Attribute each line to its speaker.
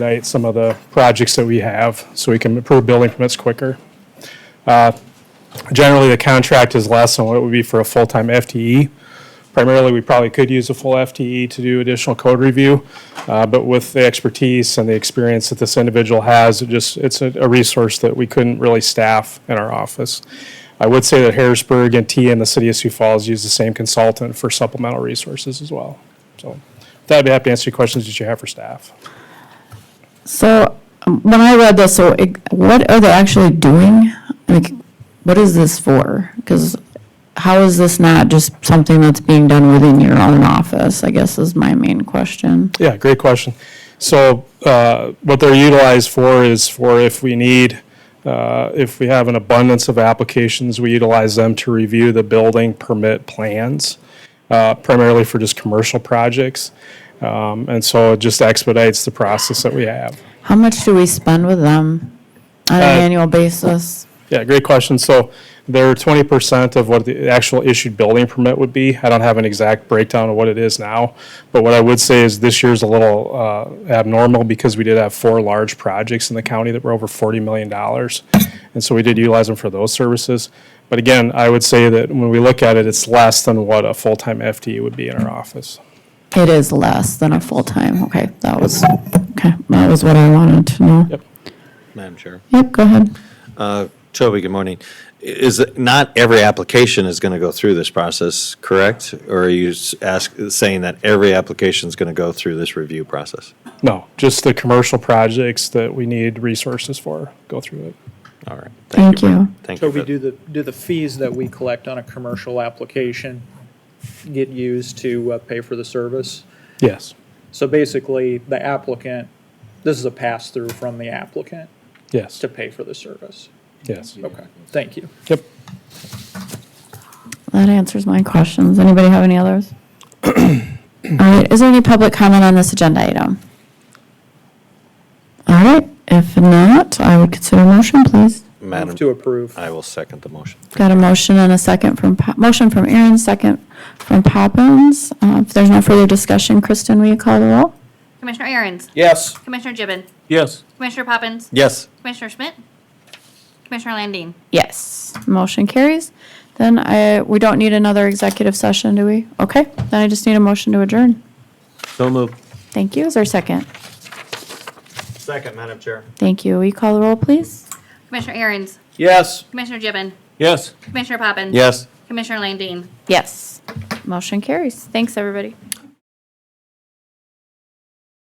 Speaker 1: expedite some of the projects that we have, so we can approve building permits quicker. Uh, Generally, the contract is less than what it would be for a full-time FTE. Primarily, we probably could use a full FTE to do additional code review, uh, but with the expertise and the experience that this individual has, it just, it's a a resource that we couldn't really staff in our office. I would say that Harrisburg and T and the city of Sioux Falls use the same consultant for supplemental resources as well. So, with that I'd be happy to answer any questions that you have for staff.
Speaker 2: So um, when I read this, so it- what are they actually doing? Like, what is this for? Because how is this not just something that's being done within your own office, I guess is my main question.
Speaker 1: Yeah, great question. So uh, what they're utilized for is for if we need, uh, if we have an abundance of applications, we utilize them to review the building permit plans, uh, primarily for just commercial projects. Um, And so it just expedites the process that we have.
Speaker 2: How much do we spend with them on an annual basis?
Speaker 1: Yeah, great question. So they're twenty percent of what the actual issued building permit would be. I don't have an exact breakdown of what it is now, but what I would say is this year's a little uh, abnormal because we did have four large projects in the county that were over forty million dollars, and so we did utilize them for those services. But again, I would say that when we look at it, it's less than what a full-time FTE would be in our office.
Speaker 2: It is less than a full-time, okay, that was, okay, that was what I wanted to know.
Speaker 1: Yep.
Speaker 3: Madam Chair.
Speaker 2: Yep, go ahead.
Speaker 3: Uh, Toby, good morning. I- Is, it- not every application is going to go through this process, correct? Or are you s- ask, saying that every application is going to go through this review process?
Speaker 1: No, just the commercial projects that we need resources for, go through it.
Speaker 3: All right.
Speaker 2: Thank you.
Speaker 3: Thank
Speaker 4: So
Speaker 3: you.
Speaker 4: we
Speaker 3: for-
Speaker 4: do the, do the fees that we collect on a commercial application get used to uh, pay for the service?
Speaker 1: Yes,
Speaker 4: So basically, the applicant, this is a pass-through from the applicant
Speaker 1: yes,
Speaker 4: to pay for the service.
Speaker 1: yes.
Speaker 4: Okay, thank you.
Speaker 1: Yep.
Speaker 2: That answers my questions. Anybody have any others? All right, is there any public comment on this agenda item? All right, if not, I would consider a motion, please.
Speaker 3: Madam,
Speaker 4: To approve.
Speaker 3: I will second the motion.
Speaker 2: Got a motion and a second from, Pa- motion from Aaron, second from Poppins. Uh, If there's no further discussion, Kristen, will you call the roll?
Speaker 5: Commissioner Aaron's.
Speaker 4: Yes.
Speaker 5: Commissioner Gibbon.
Speaker 4: Yes.
Speaker 5: Commissioner Poppins.
Speaker 3: Yes.
Speaker 5: Commissioner Schmidt. Commissioner Landine.
Speaker 2: Yes, motion carries. Then I, we don't need another executive session, do we? Okay, then I just need a motion to adjourn.
Speaker 3: So moved.
Speaker 2: Thank you. Is there a second?
Speaker 3: Second, Madam Chair.
Speaker 2: Thank you. Will you call the roll, please?
Speaker 5: Commissioner Aaron's.
Speaker 4: Yes.
Speaker 5: Commissioner Gibbon.
Speaker 3: Yes.
Speaker 5: Commissioner Poppins.
Speaker 3: Yes.
Speaker 5: Commissioner Landine.
Speaker 2: Yes. Motion carries. Thanks, everybody.